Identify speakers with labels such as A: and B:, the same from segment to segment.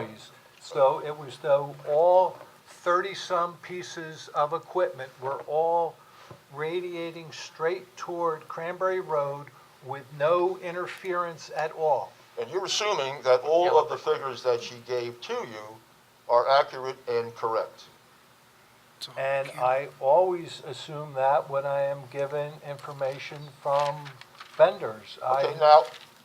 A: employees. So it was though all 30-some pieces of equipment were all radiating straight toward Cranberry Road with no interference at all.
B: And you're assuming that all of the figures that she gave to you are accurate and correct.
A: And I always assume that when I am given information from vendors.
B: Okay,
A: I,
B: now,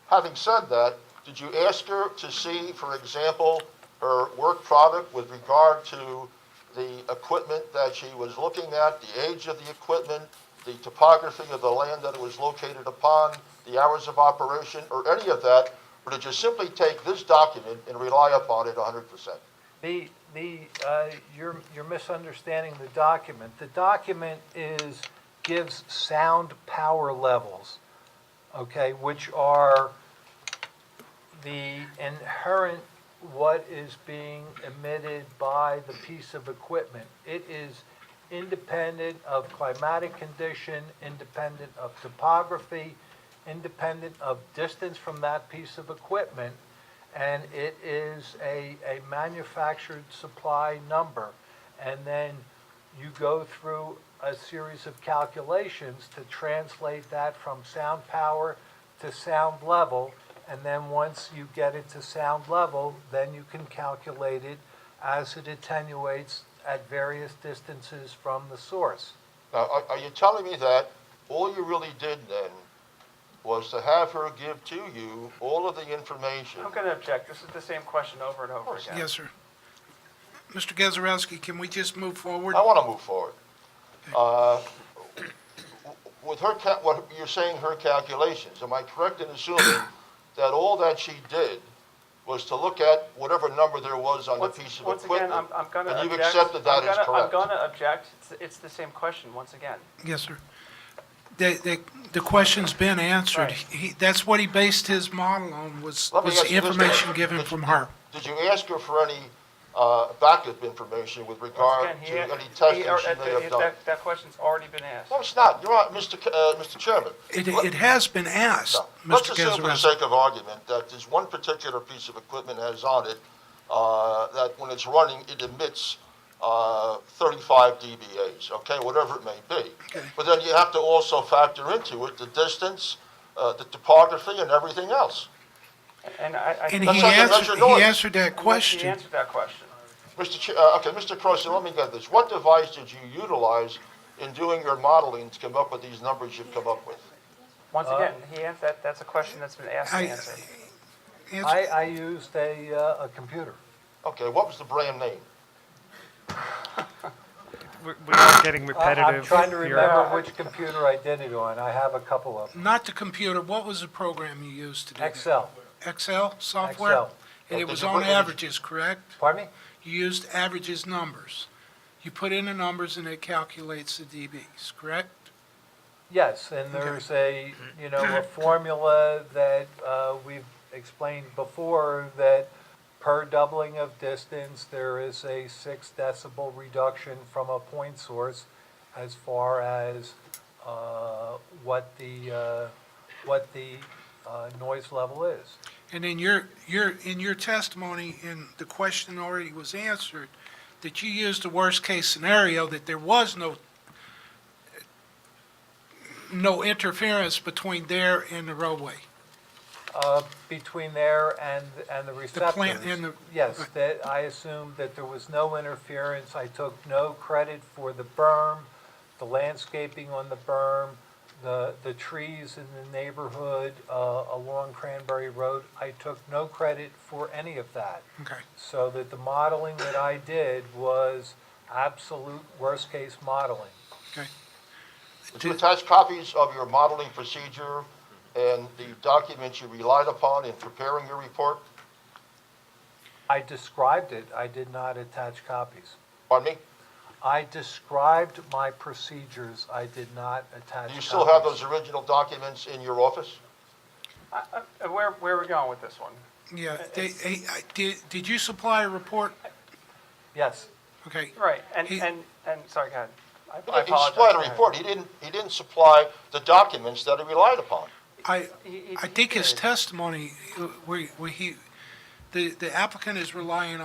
B: having said that, did you ask her to see, for example, her work product with regard to the equipment that she was looking at, the age of the equipment, the topography of the land that it was located upon, the hours of operation, or any of that? Or did you simply take this document and rely upon it 100%?
A: the, the, uh, you're, you're misunderstanding the document. The document is, gives sound power levels, okay, which are the inherent, what is being emitted by the piece of equipment. It is independent of climatic condition, independent of topography, independent of distance from that piece of equipment, and it is a, a manufactured supply number. And then you go through a series of calculations to translate that from sound power to sound level, and then once you get it to sound level, then you can calculate it as it attenuates at various distances from the source.
B: Now, are, are you telling me that all you really did then was to have her give to you all of the information?
C: I'm going to object. This is the same question over and over again.
D: Yes, sir. Mr. Gazarovski, can we just move forward?
B: I want to move forward. Uh, With her, ca- what, you're saying her calculations, am I correct in assuming that all that she did was to look at whatever number there was on the
C: Once,
B: piece of
C: once again,
B: equipment?
C: I'm, I'm going to
B: And
C: object.
B: you've accepted that
C: I'm
B: as
C: gonna- I'm
B: correct?
C: going to object. It's, it's the same question, once again.
D: Yes, sir. The, the, the question's been answered.
C: Right.
D: He, that's what he based his model on, was,
B: Let me
D: was
B: ask
D: the
B: you this,
D: information
B: Dave.
D: given from her.
B: Did you ask her for any uh, backup information with
C: Once
B: regard
C: again,
B: to
C: he,
B: any
C: he-
B: testing
C: or-
B: she may
C: that-
B: have done?
C: that, that question's already been asked.
B: No, it's not, you're on, Mr. Ca- uh, Mr. Chairman.
D: It,
B: let-
D: it has been asked,
B: No. Let's
D: Mr.
B: assume for the
D: Gazarovski.
B: sake of argument that there's one particular piece of equipment that has on it, uh, that when it's running, it emits uh, 35 dBAs, okay, whatever it may be. But then you have to also factor into it the distance, uh, the topography, and everything else.
C: And I, I.
D: And
B: That's
D: he
B: not the
D: answered,
B: measure noise.
D: he answered that
C: He
D: question.
C: answered that question.
B: Mr. Ch- uh, Okay, Mr. Croson, let me get this. What device did you utilize in doing your modeling to come up with these numbers you've come up with?
C: Once again, he answered, that, that's a question that's been asked
D: I-
C: and answered.
D: Answer-
A: I, I used a, uh, a computer.
B: Okay, what was the brand name?
E: We're we're all getting
A: I-
E: repetitive.
A: I'm trying to
E: here.
A: remember which computer I did it on. I have a couple of them.
D: Not the computer, what was the program you used to do that?
A: Excel,
D: Excel software?
A: Excel.
D: And it
B: Well,
D: was
B: did you
D: on
B: put it in-
D: averages, correct?
A: pardon me?
D: You used averages numbers. You put in the numbers and it calculates the dBs, correct?
A: Yes, and there's a, you know, a formula that uh, we've explained before that per doubling of distance, there is a six decibel reduction from a point source as far as uh, what the, uh, what the uh, noise level is.
D: And in your, your, in your testimony, and the question already was answered, that you used the worst-case scenario, that there was no, no interference between there and the roadway.
A: Uh, Between there and, and the receptors.
D: plant and the-
A: Yes, that, I assumed that there was no interference. I took no credit for the berm, the landscaping on the berm, the, the trees in the neighborhood uh, along Cranberry Road. I took no credit for any of that.
D: Okay.
A: So that the modeling that I did was absolute worst-case modeling.
B: Did you attach copies of your modeling procedure and the documents you relied upon in preparing your report?
A: I described it, I did not attach copies.
B: Pardon me?
A: I described my procedures, I did not attach.
B: Do you still have
A: copies.
B: those original documents in your office?
C: I- I- Where, where are we going with this one?
D: Yeah, they, I- I- did, did you supply a report?
A: Yes,
D: Okay,
C: Right, and,
D: He-
C: and, and, sorry, go ahead. I- I
B: He
C: apologize.
B: supplied a
C: Go ahead.
B: report, he didn't, he didn't supply the documents that he relied upon.
D: I,
C: He- he-
D: I
C: he
D: think his
C: did.
D: testimony, uh, where, where he, the the applicant is relying